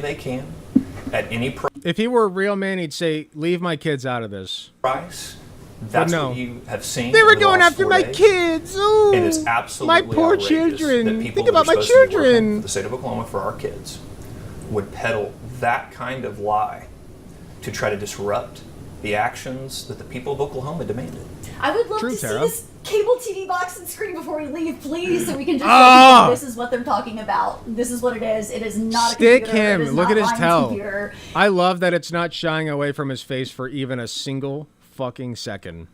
they can at any pr- If he were a real man, he'd say, "Leave my kids out of this." price. That's no. what you have seen. They over were the going last after four my days. kids. Ooh, It is absolutely my poor outrageous That children. people Think who are about my supposed to be working children. For the state of Oklahoma for our kids would peddle that kind of lie to try to disrupt the actions that the people of Oklahoma demanded. I would love True, to Tara. see this cable TV box and screen before we leave, please, so we can just Ah! show people this is what they're talking about. This is what it is. It is not Stick a computer. him. It is Look not at his Ryan's towel. Computer. I love that it's not shying away from his face for even a single fucking second.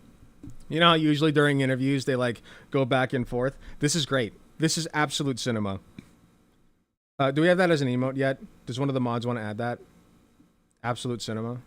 You know how usually during interviews they like go back and forth. This is great. This is absolute cinema. Uh, do we have that as an emote yet? Does one of the mods want to add that? Absolute cinema.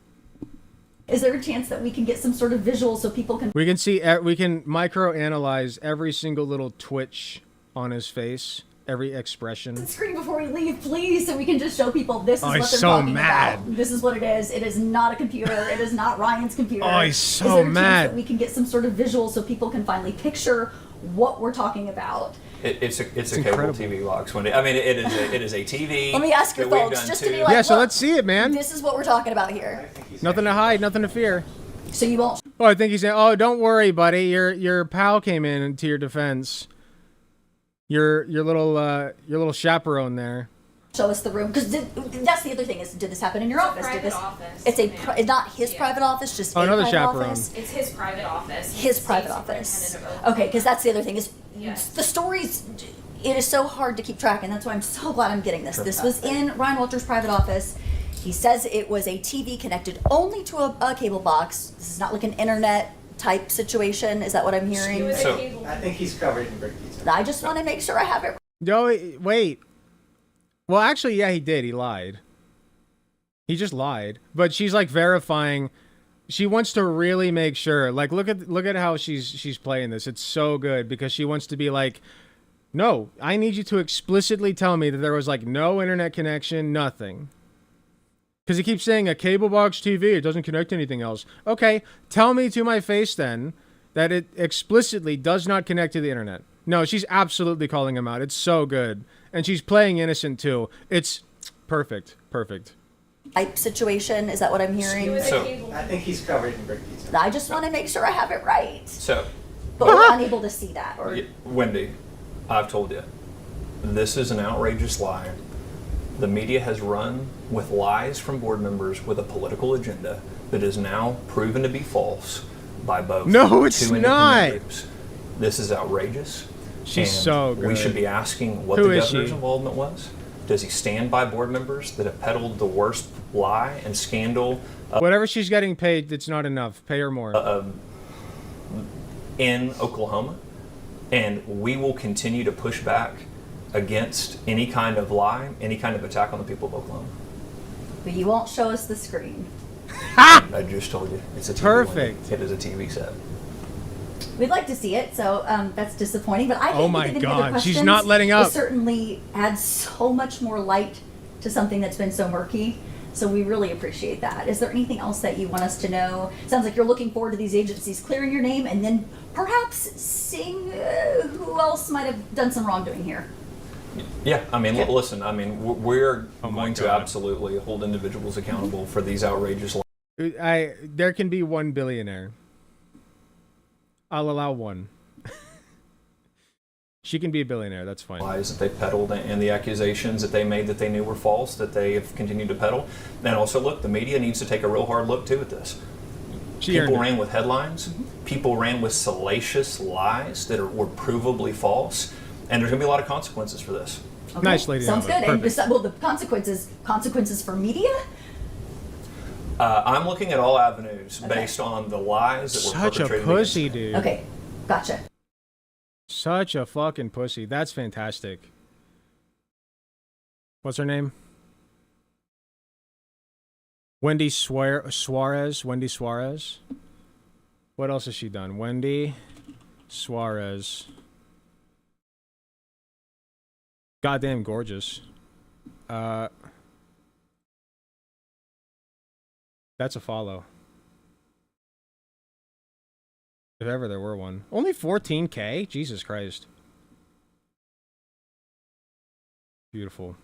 Is there a chance that we can get some sort of visual so people can We can see. e- We can micro analyze every single little twitch on his face, every expression. screen before we leave, please, so we can just show people this is Oh, what they're he's so talking mad. about. This is what it is. It is not a computer. It is not Ryan's computer. Oh, he's is so there a chance mad. that we can get some sort of visual so people can finally picture what we're talking about. It, it's a, it's a incredible. cable TV box. When it, I mean, it is a, it is a TV. Let me ask you that we've folks, done just to be too. like- Yeah, so Look, let's see it, man. This is what we're talking about here. Nothing to hide, nothing to fear. So you won't Oh, I think he's saying, "Oh, don't worry, buddy. Your your pal came in to your defense. Your your little uh, your little chaperone there. show us the room because that's the other thing is did this happen in your office? It's a Did private this? office, It's a ma'am. pri- not his Yeah. private office, just Oh, a another private chaperone. office. It's his private office. He's his the private state office. superintendent of Okay, because that's the other thing is Yes. the stories. It is so hard to keep track, and that's why I'm so glad I'm getting this. This was in Ryan Walters' private office. He says it was a TV connected only to a, a cable box. This is not like an internet type situation. Is that what I'm Oklahoma. It hearing? was So- a cable. I think he's covered in brick pizza. I just want to make sure I have it No, wait- wait. Well, actually, yeah, he did. He lied. He just lied. But she's like verifying. She wants to really make sure. Like, look at look at how she's she's playing this. It's so good because she wants to be like, no, I need you to explicitly tell me that there was like no internet connection, nothing. Because he keeps saying a cable box TV, it doesn't connect to anything else. Okay, tell me to my face then that it explicitly does not connect to the internet. No, she's absolutely calling him out. It's so good. And she's playing innocent too. It's perfect. Perfect. type situation. Is that what I'm It hearing? was So- a cable. I think he's covered in brick pizza. I just want to make sure I have it right, so but we're unable to see that. Or Y- Wendy, I've told you, this is an outrageous lie. The media has run with lies from board members with a political agenda that is now proven to be false by both. No, two it's independent not. groups. This is outrageous. She's and so We good. should be asking what Who the is governor's she? involvement was. Does he stand by board members that have peddled the worst lie and scandal Whatever she's getting paid, it's not enough. Pay her more. Uh-uh. in Oklahoma, and we will continue to push back against any kind of lie, any kind of attack on the people of Oklahoma. but you won't show us the screen. I just told you, it's a TV Perfect. It is a TV set. We'd like to see it, so um, that's disappointing. But I think Oh we my did any other God, she's questions. not letting It up. certainly adds so much more light to something that's been so murky. So we really appreciate that. Is there anything else that you want us to know? Sounds like you're looking forward to these agencies clearing your name and then perhaps seeing uh, who else might have done some wrongdoing here. Yeah, I mean, l- listen, I mean, w- we're Oh my going to God. absolutely hold individuals accountable for these outrageous lies. I there can be one billionaire. I'll allow one. she can be a billionaire. That's fine. lies that they peddled and the accusations that they made that they knew were false that they have continued to peddle. And also, look, the media needs to take a real hard look too at this. She people earned it. ran with headlines. People ran with salacious lies that are, were provably false. And there's going to be a lot of consequences for this. Okay? Nice, Lady Sounds Donovan. good. And Perfect. besi- well, the consequences consequences for media. Uh, I'm looking at all avenues Okay. based on the lies that were Such a perpetrated. pussy, against me. dude. Okay, gotcha. Such a fucking pussy. That's fantastic. What's her name? Wendy Suar- Suarez. Wendy Suarez. What else has she done? Wendy Suarez. Goddamn gorgeous. Uh, that's a follow. If ever there were one. Only 14k? Jesus Christ. Beautiful.